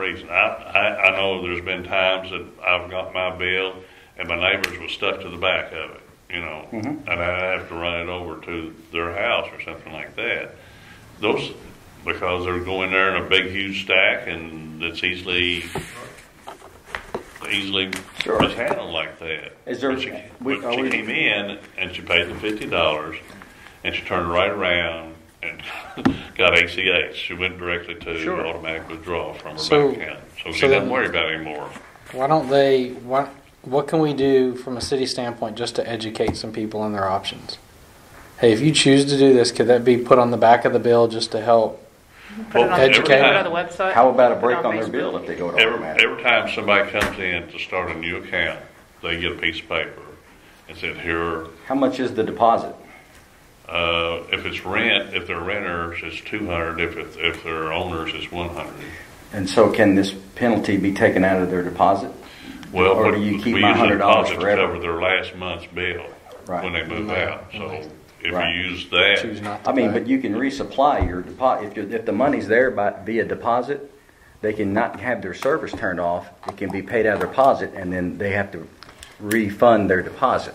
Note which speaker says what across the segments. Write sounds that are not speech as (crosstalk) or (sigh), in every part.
Speaker 1: reason. I, I, I know there's been times that I've got my bill and my neighbors was stuck to the back of it, you know,
Speaker 2: Mm-hmm.
Speaker 1: and I have to run it over to their house or something like that. Those, because they're going there in a big huge stack and it's easily, easily
Speaker 2: Sure.
Speaker 1: mishandled like that.
Speaker 2: Is there-
Speaker 1: But she,
Speaker 2: we-
Speaker 1: but
Speaker 2: are
Speaker 1: she
Speaker 2: we-
Speaker 1: came in and she paid the fifty dollars and she turned right around and (laughs) got ACH. She went directly to
Speaker 2: Sure.
Speaker 1: automatic withdrawal from her
Speaker 3: So-
Speaker 1: bank account. So she
Speaker 3: so
Speaker 1: doesn't
Speaker 3: then-
Speaker 1: worry about it anymore.
Speaker 3: Why don't they? What What can we do from a city standpoint just to educate some people on their options? Hey, if you choose to do this, could that be put on the back of the bill just to help?
Speaker 4: Put it
Speaker 1: Well,
Speaker 4: on,
Speaker 3: every
Speaker 4: put it on
Speaker 1: time-
Speaker 4: the website.
Speaker 2: How about a
Speaker 4: Put it
Speaker 2: break
Speaker 4: on
Speaker 2: on their
Speaker 4: Facebook.
Speaker 2: bill if they go to
Speaker 1: Every,
Speaker 2: automatic?
Speaker 1: every time somebody comes in to start a new account, they get a piece of paper and said, here,
Speaker 2: How much is the deposit?
Speaker 1: uh, if it's rent, if they're renters, it's two hundred. If it's, if they're owners, it's one hundred.
Speaker 2: And so can this penalty be taken out of their deposit?
Speaker 1: Well,
Speaker 2: Or
Speaker 1: but
Speaker 2: do you keep
Speaker 1: we
Speaker 2: my
Speaker 1: use a
Speaker 2: $100
Speaker 1: deposit to
Speaker 2: forever?
Speaker 1: cover their last month's bill
Speaker 2: Right. Mm-hmm.
Speaker 1: when they move out. So if
Speaker 2: Right.
Speaker 1: you use that,
Speaker 3: Choose not to.
Speaker 2: I mean,
Speaker 3: pay?
Speaker 2: but you can resupply your deposit, if, you- if the money's there by, via deposit, they can not have their service turned off, it can be paid out of their deposit, and then they have to refund their deposit.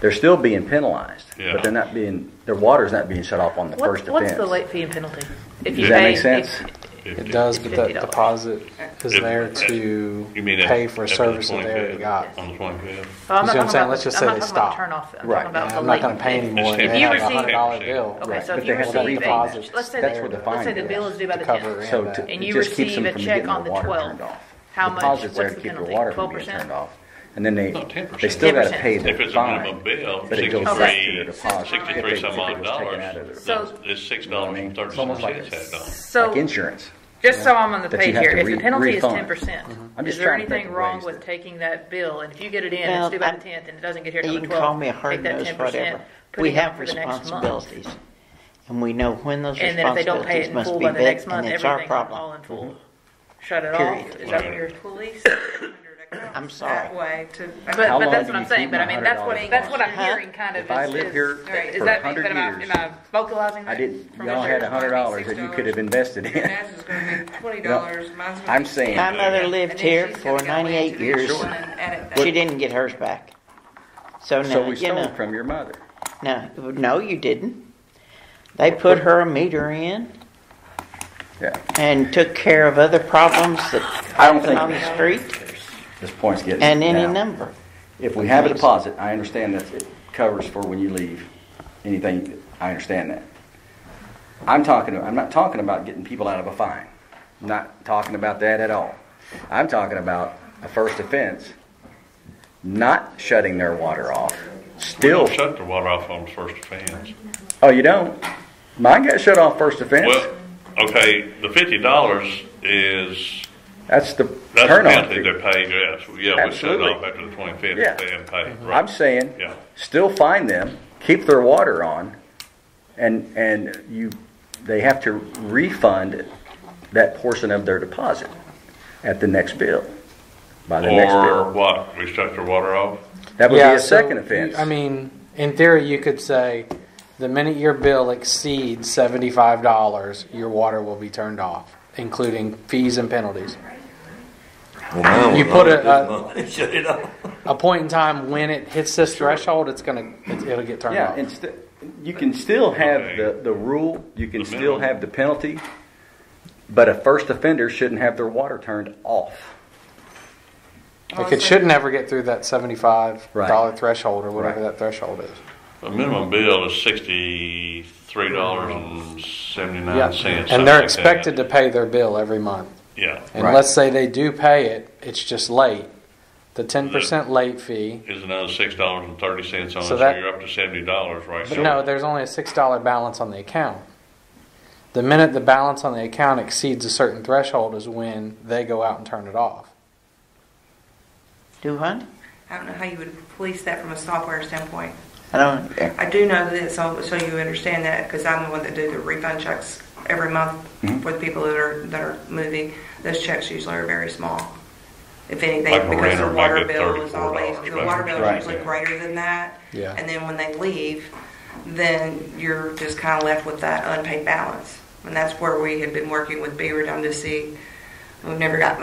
Speaker 2: They're still being penalized,
Speaker 1: Yeah.
Speaker 2: but they're not being, their water's not being shut off on the first
Speaker 4: What's,
Speaker 2: offense.
Speaker 4: what's the late fee and penalty? If you
Speaker 2: Does that
Speaker 4: pay-
Speaker 2: make sense?
Speaker 4: if-
Speaker 3: It does, but that
Speaker 4: $50.
Speaker 3: deposit is
Speaker 1: If-
Speaker 3: there to
Speaker 1: You mean
Speaker 3: pay
Speaker 1: after-
Speaker 3: for
Speaker 1: after
Speaker 3: a
Speaker 1: the
Speaker 3: service that they
Speaker 1: 25th?
Speaker 3: already got.
Speaker 4: Um,
Speaker 1: on the twenty-fifth.
Speaker 4: Oh,
Speaker 3: You
Speaker 4: I'm
Speaker 3: see
Speaker 4: not
Speaker 3: what I'm
Speaker 4: talking
Speaker 3: saying?
Speaker 4: about
Speaker 3: Let's
Speaker 4: the-
Speaker 3: just
Speaker 4: I'm
Speaker 3: say
Speaker 4: not
Speaker 3: they
Speaker 4: talking about the
Speaker 3: stop.
Speaker 4: turn off. I'm
Speaker 2: Right.
Speaker 4: talking about
Speaker 3: Yeah,
Speaker 4: the
Speaker 3: I'm not gonna
Speaker 4: late
Speaker 3: pay
Speaker 4: fee.
Speaker 3: anymore.
Speaker 1: It's
Speaker 3: They
Speaker 1: ten
Speaker 3: have a
Speaker 4: percent.
Speaker 3: hundred dollar bill.
Speaker 4: Okay,
Speaker 2: Right.
Speaker 4: so
Speaker 2: But
Speaker 4: if
Speaker 2: they
Speaker 4: you
Speaker 2: have to
Speaker 4: receive a,
Speaker 2: redeposit.
Speaker 4: let's say,
Speaker 2: That's where the
Speaker 4: the- let's say
Speaker 2: fine
Speaker 4: the
Speaker 2: is.
Speaker 4: bill is due by the
Speaker 3: To cover
Speaker 4: tenth.
Speaker 3: it.
Speaker 2: So
Speaker 3: And
Speaker 2: to-
Speaker 3: that-
Speaker 2: it
Speaker 4: And you
Speaker 2: just keeps
Speaker 4: receive
Speaker 2: them
Speaker 4: a
Speaker 2: from
Speaker 4: check
Speaker 2: getting
Speaker 4: on
Speaker 2: their
Speaker 4: the
Speaker 2: water
Speaker 4: 12th.
Speaker 2: turned off.
Speaker 4: How much-
Speaker 2: Deposits there
Speaker 4: what's
Speaker 2: to
Speaker 4: the
Speaker 2: keep your
Speaker 4: penalty?
Speaker 2: water from being
Speaker 4: 12%?
Speaker 2: turned off, and then they,
Speaker 1: No, 10%.
Speaker 2: they still gotta
Speaker 4: 10%.
Speaker 2: pay
Speaker 1: If
Speaker 2: the
Speaker 1: it's a minimum
Speaker 2: fine.
Speaker 1: bill,
Speaker 2: But it goes
Speaker 4: Okay.
Speaker 2: back to their
Speaker 1: sixty-three,
Speaker 2: deposit. if
Speaker 1: sixty-three
Speaker 2: they-
Speaker 1: some
Speaker 2: if it
Speaker 1: odd
Speaker 2: was taken out of their-
Speaker 1: dollars,
Speaker 4: So-
Speaker 1: it's six
Speaker 2: know what I
Speaker 1: dollars
Speaker 2: mean?
Speaker 1: and
Speaker 2: It's almost like
Speaker 1: thirty-six cents that dollar.
Speaker 2: Like
Speaker 4: So,
Speaker 2: insurance.
Speaker 4: just so I'm on the
Speaker 2: That you
Speaker 4: page
Speaker 2: have
Speaker 4: here,
Speaker 2: to
Speaker 4: if
Speaker 2: re-
Speaker 4: the penalty is
Speaker 2: refund. Mm-hmm.
Speaker 4: ten percent,
Speaker 2: I'm
Speaker 4: is
Speaker 2: just
Speaker 4: there
Speaker 2: trying to think
Speaker 4: anything
Speaker 2: of
Speaker 4: wrong
Speaker 2: ways
Speaker 4: with
Speaker 2: that-
Speaker 4: taking that bill, and if you get it in,
Speaker 5: Well,
Speaker 4: it's due by
Speaker 5: I'm-
Speaker 4: the tenth, and it doesn't get here till
Speaker 5: You
Speaker 4: the
Speaker 5: can
Speaker 4: twelfth.
Speaker 5: call me a hard nose, whatever. We have responsibilities. And we know when those
Speaker 4: And then if they don't pay it
Speaker 5: responsibilities
Speaker 4: in
Speaker 5: must
Speaker 4: full
Speaker 5: be
Speaker 4: by the
Speaker 5: met,
Speaker 4: next
Speaker 5: and
Speaker 4: month,
Speaker 5: it's our
Speaker 4: everything, all
Speaker 5: problem. Mm-hmm.
Speaker 4: in full. Shut it
Speaker 5: Period.
Speaker 4: off, is that what you're?
Speaker 6: Police
Speaker 2: (coughs)
Speaker 6: hundred across.
Speaker 5: I'm sorry.
Speaker 6: That way to.
Speaker 4: But,
Speaker 2: How
Speaker 4: but
Speaker 2: long
Speaker 4: that's
Speaker 2: do
Speaker 4: what I'm
Speaker 2: you
Speaker 4: saying,
Speaker 2: keep
Speaker 4: but I
Speaker 2: my
Speaker 4: mean, that's
Speaker 2: $100
Speaker 4: what, that's what I'm
Speaker 5: Huh?
Speaker 4: hearing kind of
Speaker 2: If I
Speaker 4: is,
Speaker 2: lived
Speaker 4: is-
Speaker 2: here
Speaker 4: is
Speaker 2: for
Speaker 4: that, am
Speaker 2: 100
Speaker 4: I,
Speaker 2: years,
Speaker 4: am I vocalizing that?
Speaker 2: I didn't,
Speaker 4: from
Speaker 2: y'all
Speaker 4: what
Speaker 2: had
Speaker 4: you're-
Speaker 2: a hundred dollars that you could have invested
Speaker 6: Your
Speaker 2: in.
Speaker 6: dad's is gonna be twenty
Speaker 2: No,
Speaker 6: dollars, mine's gonna
Speaker 2: (laughs)
Speaker 6: be.
Speaker 2: I'm saying,
Speaker 1: Yeah.
Speaker 5: My mother
Speaker 6: And then
Speaker 5: lived
Speaker 6: she's
Speaker 5: here
Speaker 6: gonna
Speaker 5: for
Speaker 6: go
Speaker 5: ninety-eight
Speaker 6: into the
Speaker 5: years.
Speaker 6: insurance and edit that.
Speaker 5: She didn't get hers back. So
Speaker 2: so
Speaker 5: no,
Speaker 2: we
Speaker 5: you
Speaker 2: stole
Speaker 5: know,
Speaker 2: from your mother.
Speaker 5: no, no, you didn't. They put her a meter in
Speaker 2: Yeah,
Speaker 5: and took care of other problems that
Speaker 2: I don't
Speaker 5: happened on the
Speaker 2: think-
Speaker 5: street
Speaker 2: this point's getting.
Speaker 5: and any
Speaker 2: now.
Speaker 5: number.
Speaker 2: If we have a deposit, I understand that it covers for when you leave, anything, I understand that. I'm talking, I'm not talking about getting people out of a fine, not talking about that at all. I'm talking about a first offense, not shutting their water off,
Speaker 1: We
Speaker 2: still,
Speaker 1: don't shut the water off on the first offense.
Speaker 2: oh, you don't? Mine got shut off first offense,
Speaker 1: Well, okay, the fifty dollars is,
Speaker 2: that's the
Speaker 1: that's the
Speaker 2: turn off.
Speaker 1: penalty they pay, yes, yeah, we shut it
Speaker 2: Absolutely.
Speaker 1: off after the twenty-fifth,
Speaker 2: Yeah. Mm-hmm.
Speaker 1: they haven't paid, right?
Speaker 2: I'm saying,
Speaker 1: Yeah.
Speaker 2: still find them, keep their water on, and, and you, they have to refund that portion of their deposit at the next bill, by the next
Speaker 1: Or
Speaker 2: bill.
Speaker 1: what, we shut their water
Speaker 2: (laughs)
Speaker 1: off?
Speaker 2: That would be
Speaker 3: Yeah,
Speaker 2: a
Speaker 3: so
Speaker 2: second
Speaker 3: you-
Speaker 2: offense.
Speaker 3: I mean, in theory, you could say, the minute your bill exceeds seventy-five dollars, your water will be turned off, including fees and penalties. You put a, a,
Speaker 7: Shut it off.
Speaker 3: a point in time when it hits this threshold, it's gonna, it's- it'll get turned
Speaker 2: Yeah,
Speaker 3: off.
Speaker 2: and st- you can still have Uh-huh. the,
Speaker 1: Okay.
Speaker 2: the rule, you can
Speaker 1: The
Speaker 2: still
Speaker 1: minimum.
Speaker 2: have the penalty, but a first offender shouldn't have their water turned off.
Speaker 3: Like, it should never get through that seventy-five dollar
Speaker 2: Right.
Speaker 3: threshold or whatever
Speaker 2: Right.
Speaker 3: that threshold is.
Speaker 1: The minimum bill is sixty-three dollars and
Speaker 3: Yeah,
Speaker 1: seventy-nine cents.
Speaker 3: and they're expected to pay their bill every month.
Speaker 1: Yeah,
Speaker 3: And
Speaker 2: Right.
Speaker 3: let's say they do pay it, it's just late. The ten percent late fee.
Speaker 1: is another six dollars and thirty cents on it,
Speaker 3: So
Speaker 1: so
Speaker 3: that-
Speaker 1: you're up to seventy dollars right
Speaker 3: But
Speaker 1: now.
Speaker 3: no, there's only a six dollar balance on the account. The minute the balance on the account exceeds a certain threshold is when they go out and turn it off.
Speaker 5: Do what?
Speaker 6: I don't know how you would police that from a software standpoint.
Speaker 5: I don't, yeah.
Speaker 6: I do know that, so, so you understand that, because I'm the one that do the refund checks every month
Speaker 1: Mm-hmm.
Speaker 6: for the people that are, that are moving. Those checks usually are very small, if
Speaker 1: Like a
Speaker 6: anything, because
Speaker 1: renter
Speaker 6: the
Speaker 1: might
Speaker 6: water
Speaker 1: get
Speaker 6: bill is
Speaker 1: $34
Speaker 6: always, the
Speaker 1: back.
Speaker 6: water bill
Speaker 2: Right.
Speaker 6: is usually greater than that.
Speaker 3: Yeah.
Speaker 6: And then when they leave, then you're just kind of left with that unpaid balance. And that's where we had been working with Beaver Dam to see We've never got